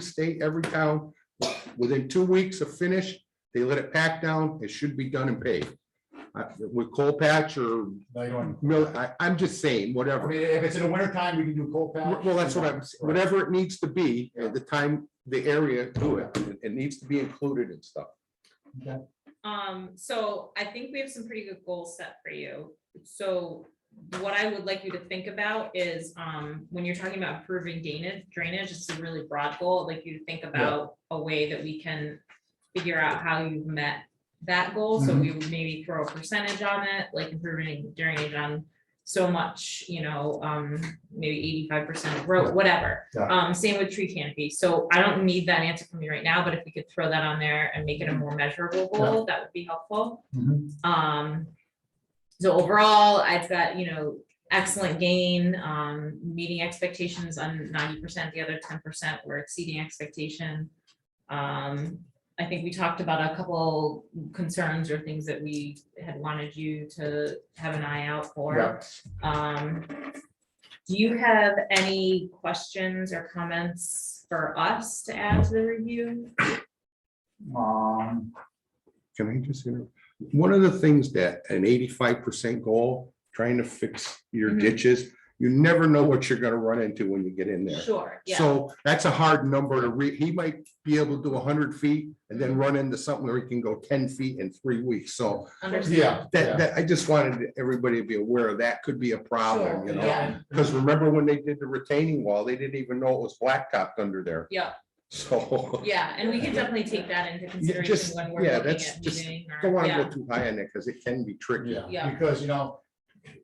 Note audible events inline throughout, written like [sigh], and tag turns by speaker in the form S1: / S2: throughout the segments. S1: state, every town, within two weeks of finish, they let it pack down, it should be done and paved. I- With coal patch or,
S2: No, you don't.
S1: mill- I, I'm just saying,
S2: I
S1: whatever.
S2: mean, if it's in the winter time, we can do cold patch.
S1: Well, that's what I'm, whatever it needs to be, at the time, the area, do it. It- It needs to be included and stuff.
S3: Um, so I think we have some pretty good goals set for you. So what I would like you to think about is, um, when you're talking about improving drainage, drainage is a really broad goal. I'd Like you to think about a way that we can figure out how you've met that goal.
S2: Mm-hmm.
S3: So we would maybe throw a percentage on it, like improving drainage on so much, you know, um, maybe eighty-five percent of road, whatever.
S2: Yeah.
S3: Um, same with tree canopy. So I don't need that answer from you right now, but if we could throw that on there and make it a
S2: Mm-hmm.
S3: more measurable goal, that would be helpful.
S2: Mhm.
S3: Um, so overall, I've got, you know, excellent gain, um, meeting expectations on ninety percent, the other ten percent were exceeding expectation. Um, I think we talked about a couple concerns or things that we had wanted you to have an eye out for.
S2: Yeah.
S3: Um, do you have any questions or comments for us to add to the review?
S2: Um,
S1: Can I just, inter- one of the things that an eighty-five percent goal, trying to fix your
S3: Mhm.
S1: ditches, you never know what you're gonna run into when you get in there.
S3: Sure, yeah,
S1: So that's a hard number to read. He might be able to do hundred feet and then run into something where he can go ten feet in three weeks. So
S3: understand.
S2: yeah.
S1: that,
S2: yeah.
S1: that, I just wanted everybody to be aware of that could be a problem, you
S3: Sure,
S1: know?
S3: yeah.
S1: Because remember when they did the retaining wall, they didn't even know it was blacktopped under there.
S3: Yeah,
S1: [laughs] So
S3: yeah, and we can definitely take that into consideration
S1: just-
S3: when we're
S1: yeah,
S3: looking
S1: that's
S3: at
S1: just-
S3: meeting. or-
S1: don't want to
S3: yeah,
S1: go too high on it because it can be tricky.
S3: Yeah.
S2: Yeah, because, you know,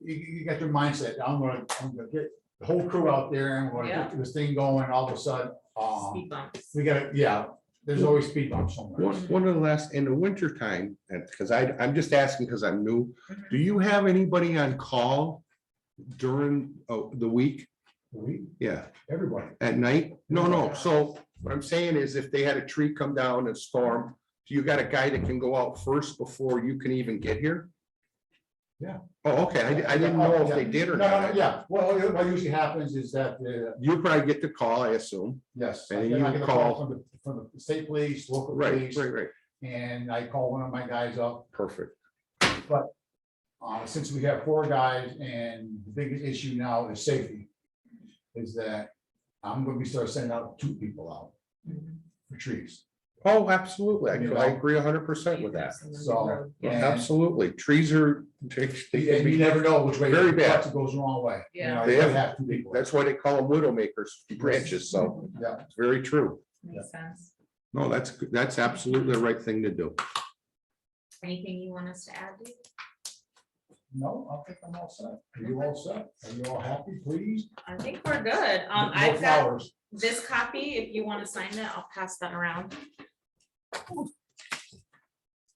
S2: you, you got your mindset, I'm gonna, I'm gonna get the whole crew out there and we're gonna get this thing going, all of a sudden, um,
S3: speed bumps.
S2: we gotta, yeah, there's always speed bumps somewhere.
S1: One, one of the last, in the winter time, and because I, I'm just asking because I'm new,
S3: Mm-hmm.
S1: do you have anybody on call during uh, the week?
S2: We,
S1: Yeah,
S2: everybody,
S1: at night? No, no. So what I'm saying is if they had a tree come down and storm, do you got a guy that can go out first before you can even get here?
S2: Yeah.
S1: Oh, okay. I, di- I didn't know if they did
S2: no,
S1: or
S2: no, no,
S1: not.
S2: yeah, well, you- what usually happens is that, uh,
S1: You probably get the call, I assume.
S2: yes. I
S1: And
S2: get- I
S1: you
S2: get a
S1: call-
S2: From the, from the state police, local
S1: Right,
S2: police,
S1: right, right.
S2: and I call one of my guys up,
S1: Perfect.
S2: Uh, since we have four guys and the biggest issue now is safety. Is that I'm gonna be start sending out two people out
S3: Mhm.
S2: for trees.
S1: Oh, absolutely. I
S2: You
S1: I
S2: know?
S1: agree hundred percent with that.
S2: So-
S3: Yeah.
S2: And-
S1: Absolutely. Trees are. they can
S2: And
S1: be-
S2: you never know which way.
S1: Very bad.
S2: It goes the wrong way. You
S3: Yeah.
S2: know,
S1: They
S2: You
S1: have-
S2: have two people.
S1: That's why they call them widowmakers, branches, so
S2: Yeah,
S1: it's very true.
S3: Makes sense.
S1: No, that's, good. that's absolutely the right thing to do.
S3: Anything you want us to add? Dave?
S2: no, I think I'm all set. Are you all set? Are you all happy, please?
S3: I think we're good. Um,
S2: No
S3: I've got
S2: flowers.
S3: this copy, if you want to sign that, I'll pass that around.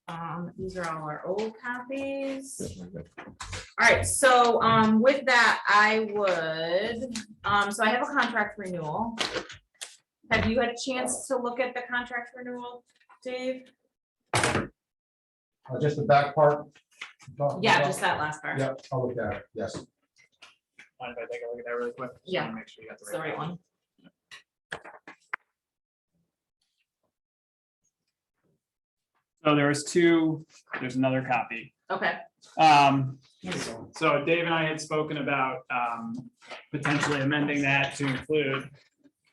S3: Um, these are all our old copies. All right, so, um, with that, I would, um, so I have a contract renewal. Have you had a chance to look at the contract renewal, Dave?
S2: Uh, Just the back part. you talked
S3: Yeah,
S2: about?
S3: just that last part.
S2: Yep, I'll look at it, yes.
S4: Mind if I take a look at that really quick? Just
S3: Yeah.
S4: wanna Make sure you got
S3: It's the right one.
S4: So there was two, there's another copy.
S3: Okay,
S4: Um, so Dave and I had spoken about, um, potentially amending that to include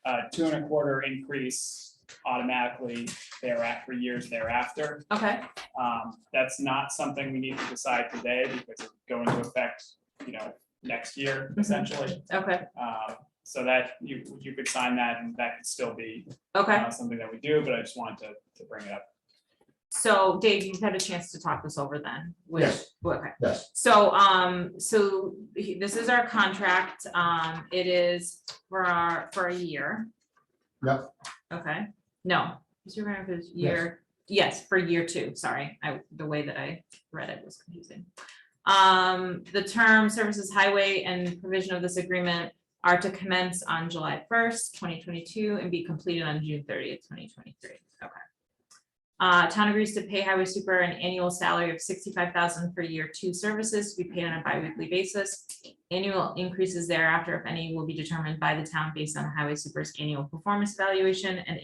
S4: a two and a quarter increase automatically thereafter, years thereafter.
S3: okay,
S4: Um, that's not something we need to decide today because it's going to affect, you know, next
S3: Mm-hmm.
S4: year essentially.
S3: okay,
S4: Uh, so that you, you could sign that and that could still be
S3: okay.
S4: uh, something that we do, but I just wanted to, to bring it up.
S3: So Dave, you've had a chance to talk this over then, which,
S2: Yes.
S3: okay.
S2: Yes,
S3: So, um, so he- this is our contract, um, it is for our, for a year.
S2: Yep.
S3: Okay, no, is your grant is year, yes, for year two, sorry, I, the way that I read it was confusing. Um, the term services highway and provision of this agreement are to commence on July first, twenty twenty-two and be completed on June thirtieth, twenty twenty-three, okay. Uh, town agrees to pay highway super an annual salary of sixty-five thousand for year two services to be paid on a bi-weekly basis. Annual increases thereafter, if any, will be determined by the town based on the highway super's annual performance evaluation and